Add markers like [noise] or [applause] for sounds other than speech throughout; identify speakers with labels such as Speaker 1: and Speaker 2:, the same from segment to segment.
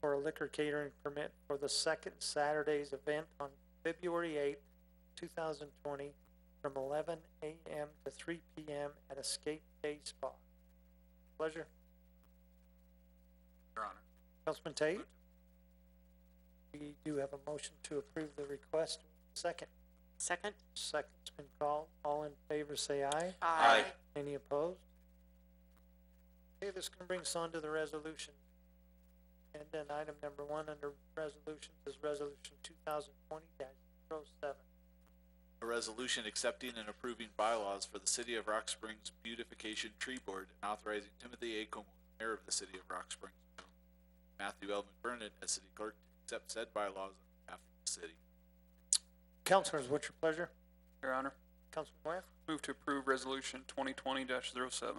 Speaker 1: for a liquor catering permit for the second Saturday's event on February eighth, two thousand twenty, from eleven AM to three PM at Escape Day Spa. Pleasure,
Speaker 2: Your Honor.
Speaker 1: Councilman Tate? We do have a motion to approve the request. Second,
Speaker 3: Second?
Speaker 1: second's been called. All in favor, say aye.
Speaker 2: Aye.
Speaker 1: Any opposed? Okay, this can bring us on to the resolution. And then item number one under resolutions is resolution two thousand twenty dash zero seven.
Speaker 2: A resolution accepting and approving bylaws for the City of Rock Springs Beautification Tree Board and authorizing Timothy A. Como, Mayor of the City of Rock Springs, Matthew L. McBurnett as City Clerk to accept said bylaws on behalf of the city.
Speaker 1: Councilors, what's your pleasure?
Speaker 4: Your Honor,
Speaker 1: Councilman Ware?
Speaker 4: move to approve resolution twenty twenty oh 7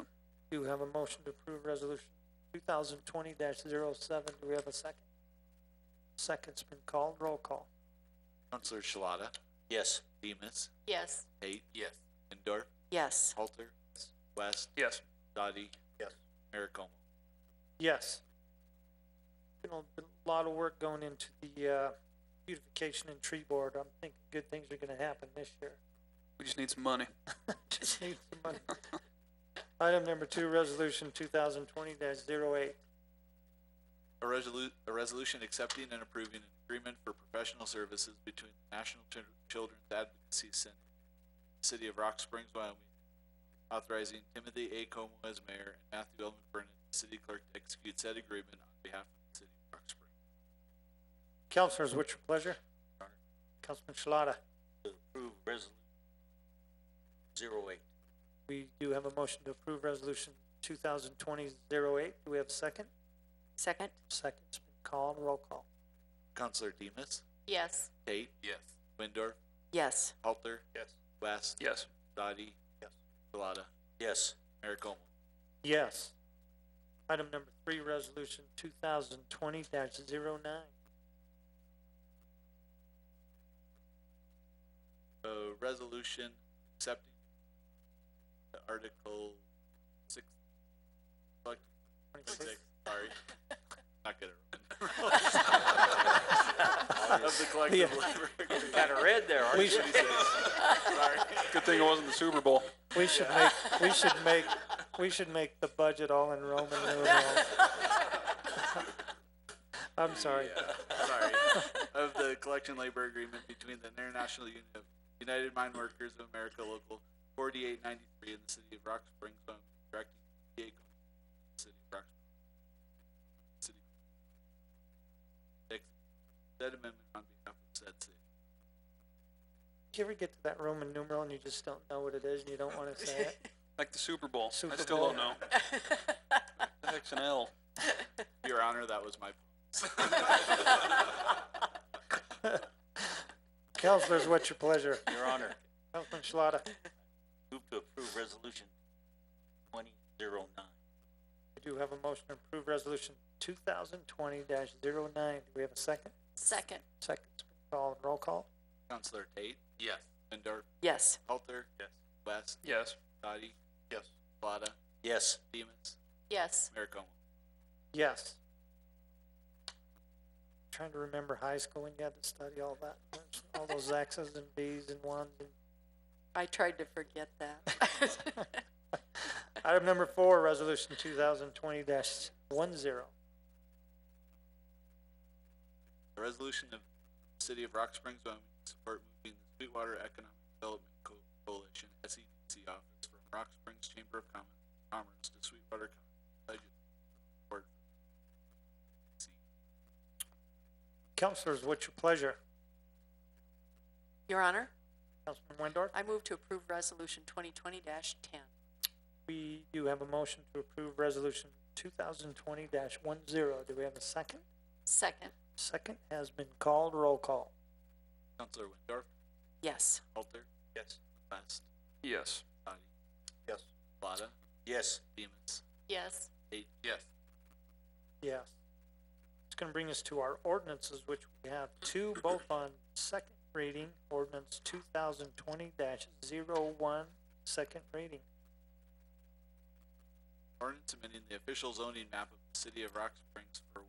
Speaker 1: Do we have a motion to approve resolution two thousand twenty dash zero seven? Do we have a second? Second's been called. Roll call.
Speaker 2: Counselor Shalata? Yes. Demus?
Speaker 3: Yes.
Speaker 2: Tate? Yes. Lindor?
Speaker 3: Yes.
Speaker 2: Halter? West?
Speaker 4: Yes.
Speaker 2: Dottie?
Speaker 1: Yes.
Speaker 2: Mayor Como?
Speaker 1: Yes. Been a been a lot of work going into the, uh, beautification and tree board. I'm thinking good things are gonna happen this year.
Speaker 4: We just need some money.
Speaker 1: Just need some money. [laughs] Item number two, resolution two thousand twenty 8
Speaker 2: A resolu- a resolution accepting and approving an agreement for professional services between the National Chil- Children's Advocacy Center, and the City of Rock Springs, Wyoming, authorizing Timothy A. Como as mayor and Matthew L. McBurnett, city clerk, to execute said agreement on behalf of the City of Rock Springs.
Speaker 1: Counselors, what's your pleasure?
Speaker 2: Honor.
Speaker 1: Councilman Shalata,
Speaker 5: to approve resolution zero eight.
Speaker 1: we do have a motion to approve resolution 2020-08. Do we have a second?
Speaker 3: Second?
Speaker 1: Second's been called. Roll call.
Speaker 2: Counselor Demus,
Speaker 3: Yes.
Speaker 2: Tate. Yes. Windor,
Speaker 3: Yes.
Speaker 2: Halter,
Speaker 1: Yes.
Speaker 2: West.
Speaker 4: Yes.
Speaker 2: Dottie.
Speaker 1: Yes.
Speaker 2: Shalata,
Speaker 5: Yes,
Speaker 2: Mayor Como.
Speaker 1: Yes. Item number three, resolution two thousand twenty 9
Speaker 2: A resolution accepting the Article six, select Six, sorry. Not good at remembering.
Speaker 1: [laughs]
Speaker 2: Of the collective
Speaker 1: Yeah.
Speaker 2: labor.
Speaker 5: kind of red there, aren't
Speaker 1: We
Speaker 5: you?
Speaker 1: should,
Speaker 4: Good thing it wasn't the Super Bowl.
Speaker 1: we should make, we should make, we should make the budget all in Roman numerals. I'm sorry.
Speaker 2: Sorry. Of the collection labor agreement between the International Union of United Mine Workers of America Local forty-eight ninety-three in the city of Rock Springs, Wyoming, directing the city of Rock Springs. City. Ex- Said amendment on behalf of said city.
Speaker 1: Did you ever get to that Roman numeral and you just don't know what it is and you don't wanna say it?
Speaker 4: Like the Super Bowl. I
Speaker 1: Super
Speaker 4: still
Speaker 1: Bowl. [laughs]
Speaker 4: don't know. The heck's an L?
Speaker 2: Your honor, that was my.
Speaker 1: Counselors, what's your pleasure?
Speaker 5: Your Honor,
Speaker 1: Councilman Schlada,
Speaker 5: move to approve resolution twenty zero nine.
Speaker 1: we do have a motion to approve resolution two thousand twenty 9 Do we have a second?
Speaker 3: Second?
Speaker 1: Second's been called. Roll call?
Speaker 2: Counselor Tate? Yes. Lindor?
Speaker 3: Yes.
Speaker 2: Halter? Yes. West?
Speaker 4: Yes.
Speaker 2: Dottie? Yes. Shalata?
Speaker 5: Yes,
Speaker 2: Demus?
Speaker 3: Yes.
Speaker 2: Mayor Como?
Speaker 1: Yes. Trying to remember high school when you had to study all that, all those X's and B's and ones and
Speaker 3: I tried to forget that. [laughs]
Speaker 1: Item number four, resolution two thousand twenty dash one zero.
Speaker 2: A resolution of the City of Rock Springs, Wyoming, to support moving the Sweetwater Economic Development Co- Coalition, SEDC office from Rock Springs Chamber of Com- Commerce to Sweetwater County Budget.
Speaker 1: Counselors, what's your pleasure?
Speaker 3: Your Honor,
Speaker 1: Councilman Windor?
Speaker 3: I move to approve Resolution twenty twenty ten.
Speaker 1: We do have a motion to approve resolution two thousand twenty one zero. Do we have a second?
Speaker 3: Second?
Speaker 1: Second has been called. Roll call.
Speaker 2: Counselor Windorf,
Speaker 3: Yes.
Speaker 2: Halter,
Speaker 5: yes,
Speaker 2: West,
Speaker 4: Yes.
Speaker 2: Dottie,
Speaker 1: Yes.
Speaker 2: Shalata,
Speaker 5: yes,
Speaker 2: Demus,
Speaker 3: Yes.
Speaker 2: Tate. Yes.
Speaker 1: Yes. It's gonna bring us to our ordinances, which we have two, both on second reading, ordinance two thousand twenty dash zero one, second reading.
Speaker 2: Ordinance amending the official zoning map of the city of Rock Springs for